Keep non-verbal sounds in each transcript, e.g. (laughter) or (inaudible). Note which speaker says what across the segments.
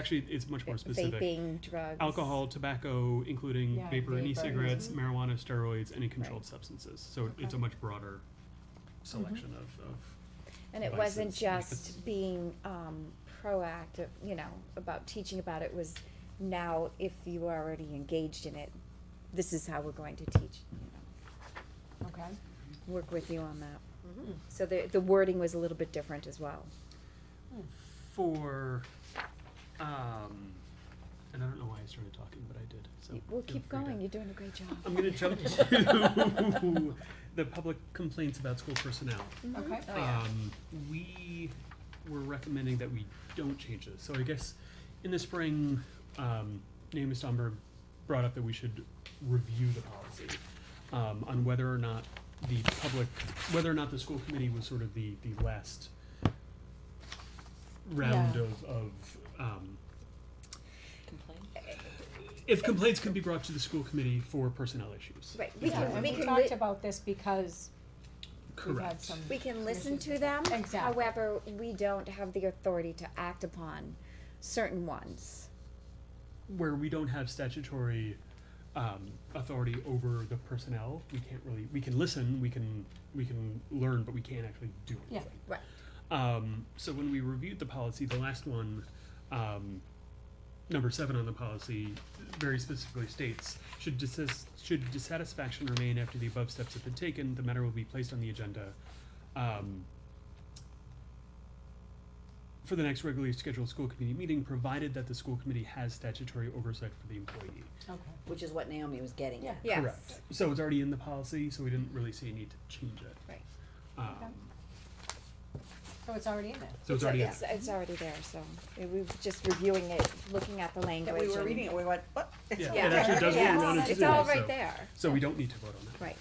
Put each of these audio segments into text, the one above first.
Speaker 1: Actually, it's much more specific.
Speaker 2: Vaping, drugs.
Speaker 1: Alcohol, tobacco, including
Speaker 3: Yeah,
Speaker 1: vapor and
Speaker 2: vapor.
Speaker 1: e-cigarettes,
Speaker 3: Mhm.
Speaker 1: marijuana, steroids, any controlled
Speaker 2: Right.
Speaker 1: substances. So it- it's
Speaker 3: Okay. Mm-hmm.
Speaker 1: a much broader selection of, of,
Speaker 2: And it wasn't
Speaker 1: devices.
Speaker 2: just being um, proactive, you know, about teaching about it. Was now if you are already engaged in it, this is how we're going to teach. You know,
Speaker 3: Okay.
Speaker 2: work with you on that. So the the wording was a little bit different as well.
Speaker 1: for, um, and I don't know why I started talking, but I did, so.
Speaker 2: You- Well,
Speaker 1: feel
Speaker 2: keep
Speaker 1: free to-
Speaker 2: going. You're doing a great job.
Speaker 1: I'm gonna jump (laughs) to the public complaints about school personnel.
Speaker 3: Okay.
Speaker 2: Oh, yeah.
Speaker 1: Um, we were recommending that we don't change this, so I guess in the spring, um, Naomi Stomberg brought up that we should review the policy. Um, on whether or not the public, whether or not the school committee was sort of the, the last round
Speaker 3: Yeah.
Speaker 1: of, of, um, if complaints can be brought to the school committee for personnel issues.
Speaker 2: Right. We
Speaker 3: Yeah,
Speaker 2: can
Speaker 3: and
Speaker 2: we
Speaker 3: we
Speaker 2: can
Speaker 3: talked
Speaker 2: li-
Speaker 3: about this because we've had
Speaker 1: Correct.
Speaker 3: some.
Speaker 2: we can listen
Speaker 3: issues
Speaker 2: to
Speaker 3: with
Speaker 2: them.
Speaker 3: that. Exactly.
Speaker 2: However, we don't have the authority to act upon certain ones.
Speaker 1: where we don't have statutory um, authority over the personnel, we can't really, we can listen, we can, we can learn, but we can't actually do
Speaker 3: Yeah.
Speaker 1: anything.
Speaker 2: Right.
Speaker 1: Um, so when we reviewed the policy, the last one, um, number seven on the policy, very specifically states, should dissis, should dissatisfaction remain after the above steps have been taken, the matter will be placed on the agenda, um, for the next regularly scheduled school committee meeting, provided that the school committee has statutory oversight for the employee.
Speaker 3: Okay.
Speaker 4: Which is what Naomi was getting
Speaker 3: Yeah.
Speaker 4: at.
Speaker 2: Yes.
Speaker 1: Correct. So it's already in the policy, so we didn't really see a need to change it.
Speaker 2: Right.
Speaker 1: Um,
Speaker 3: Okay. So it's already in there.
Speaker 1: so it's already in
Speaker 2: It's, it's already there, so we were just reviewing it, looking at the language.
Speaker 4: That we were
Speaker 2: and-
Speaker 4: reading it, we went, what? It's
Speaker 1: Yeah,
Speaker 4: all
Speaker 1: it
Speaker 2: Yeah.
Speaker 4: there."
Speaker 1: actually does what
Speaker 2: Yes.
Speaker 1: we wanted to
Speaker 2: It's
Speaker 1: do,
Speaker 2: all right
Speaker 1: so-
Speaker 2: there,
Speaker 1: So we don't need to vote on that.
Speaker 2: right.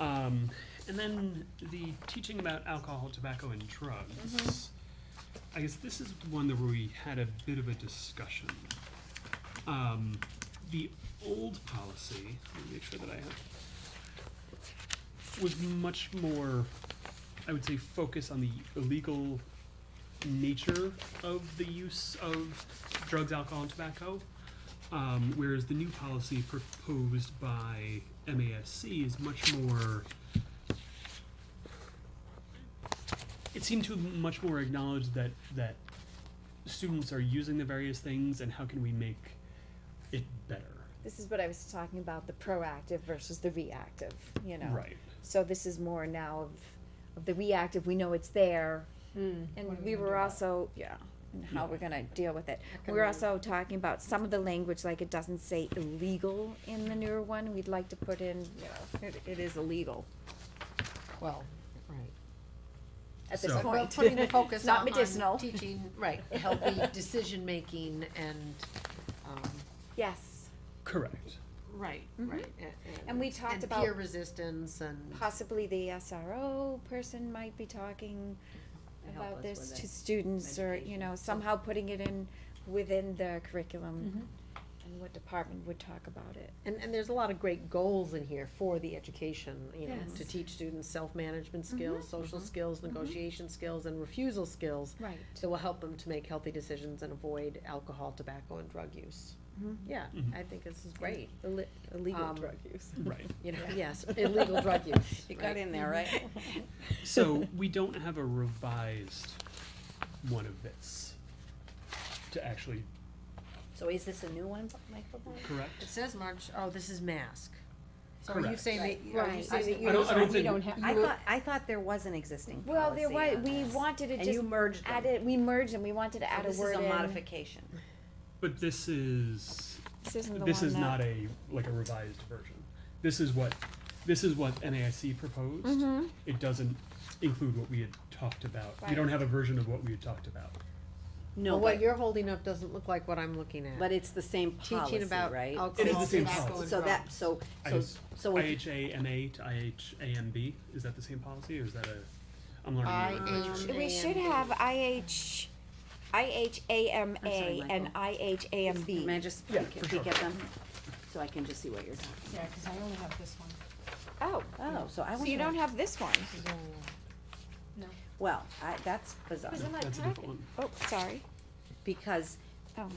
Speaker 1: Um, and then the teaching about alcohol, tobacco, and drugs. I guess this is one that we had a bit of a discussion. Um, the old policy, let me make sure that I have, was much more, I would say, focus on the illegal nature of the use of drugs, alcohol, and tobacco. Um, whereas the new policy proposed by MASC is much more. It seemed to much more acknowledge that that students are using the various things and how can we make it better.
Speaker 2: This is what I was talking about, the proactive versus the reactive, you know?
Speaker 1: Right.
Speaker 2: So this is more now of, of the reactive, we know it's there,
Speaker 3: What
Speaker 2: and
Speaker 3: are
Speaker 2: we
Speaker 3: we gonna
Speaker 2: were
Speaker 3: do about
Speaker 2: also, yeah, and how
Speaker 1: Yeah.
Speaker 2: we're gonna deal with it. We
Speaker 3: can
Speaker 2: were
Speaker 3: we-
Speaker 2: also talking about some of the language, like it doesn't say illegal in the newer one, we'd like to put in, you know, it, it is illegal
Speaker 5: Well, right.
Speaker 2: at this
Speaker 1: So-
Speaker 2: point.
Speaker 1: But
Speaker 5: Well, putting
Speaker 2: (laughs)
Speaker 5: the focus
Speaker 2: Not
Speaker 5: on- on
Speaker 2: medicinal.
Speaker 5: (laughs) Teaching, right, healthy decision-making and, um,
Speaker 2: Yes,
Speaker 1: Correct.
Speaker 5: right,
Speaker 2: Mhm.
Speaker 5: right. a-
Speaker 2: And we talked
Speaker 5: and
Speaker 2: about-
Speaker 5: peer resistance and,
Speaker 2: possibly the SRO person might be talking
Speaker 4: To help
Speaker 2: about
Speaker 4: us
Speaker 2: this
Speaker 4: with
Speaker 2: to
Speaker 4: it.
Speaker 2: students or, you
Speaker 4: medication.
Speaker 2: know, somehow putting it in within the curriculum
Speaker 4: Mm-hmm.
Speaker 2: and what department would talk about it.
Speaker 5: and, and there's a lot of great goals in here for the education, you know,
Speaker 2: Yes.
Speaker 5: to teach students self-management skills, social skills, negotiation skills, and refusal skills
Speaker 2: Right.
Speaker 5: that will help them to make healthy decisions and avoid alcohol, tobacco, and drug use. Yeah,
Speaker 1: Mhm.
Speaker 5: I think this is great,
Speaker 2: Illegal
Speaker 5: Um,
Speaker 2: drug use.
Speaker 1: Right.
Speaker 5: you know, yes, illegal (laughs) drug use.
Speaker 4: It
Speaker 5: right.
Speaker 4: got in there, right?
Speaker 1: So we don't have a revised one of this to actually
Speaker 4: So is this a new one, Michael?
Speaker 1: correct.
Speaker 5: It says March, oh, this is mask. So are you
Speaker 1: Correct.
Speaker 5: saying that, are you
Speaker 2: Right.
Speaker 5: saying that
Speaker 1: I don't-
Speaker 5: you,
Speaker 1: I don't
Speaker 3: We
Speaker 1: think-
Speaker 3: don't have,
Speaker 4: I
Speaker 3: you were-
Speaker 4: thought, I thought there was an existing
Speaker 2: Well, there
Speaker 4: policy
Speaker 2: was,
Speaker 4: on
Speaker 2: we
Speaker 4: this.
Speaker 2: wanted to
Speaker 4: And you
Speaker 2: just
Speaker 4: merged them.
Speaker 2: add it, we merged and we wanted to
Speaker 4: So
Speaker 2: add a
Speaker 4: This
Speaker 2: word
Speaker 4: is a
Speaker 2: in.
Speaker 4: modification.
Speaker 1: But this is
Speaker 2: This isn't the
Speaker 1: this
Speaker 2: one
Speaker 1: is
Speaker 2: that-
Speaker 1: not a like a revised version. This is what this is what NAIC proposed. It doesn't include what we had talked about. We don't
Speaker 2: Right.
Speaker 1: have a version of what we had talked about.
Speaker 4: No,
Speaker 5: well, what
Speaker 4: but,
Speaker 5: you're holding up doesn't look like what I'm looking at.
Speaker 4: but it's the same policy,
Speaker 5: Teaching about
Speaker 1: It
Speaker 4: right?
Speaker 1: is
Speaker 5: alcohol,
Speaker 1: the same
Speaker 5: tobacco,
Speaker 1: policy.
Speaker 5: and
Speaker 4: So that,
Speaker 5: drugs.
Speaker 4: so,
Speaker 1: I
Speaker 4: so,
Speaker 1: just-
Speaker 4: so if,
Speaker 1: IHAMA to IHAMB is that the same policy or is that a? I'm learning.
Speaker 5: I
Speaker 1: new language.
Speaker 5: H
Speaker 2: We
Speaker 5: A
Speaker 2: should
Speaker 5: M B.
Speaker 2: have IH,
Speaker 4: I'm sorry,
Speaker 2: IHAMA and
Speaker 4: Michael.
Speaker 2: IHAMB.
Speaker 4: can I just
Speaker 1: Yeah,
Speaker 4: peek
Speaker 1: for
Speaker 4: peek
Speaker 1: sure.
Speaker 4: at them? So I can just see what you're talking
Speaker 3: yeah, cause I only have this one.
Speaker 2: Oh,
Speaker 4: about. Oh, so I
Speaker 2: so you
Speaker 4: wonder-
Speaker 2: don't have this one.
Speaker 4: well, I, that's bizarre.
Speaker 2: It was in my
Speaker 1: That's a different
Speaker 2: packet.
Speaker 1: one.
Speaker 2: Oh, sorry.
Speaker 4: because
Speaker 2: Oh,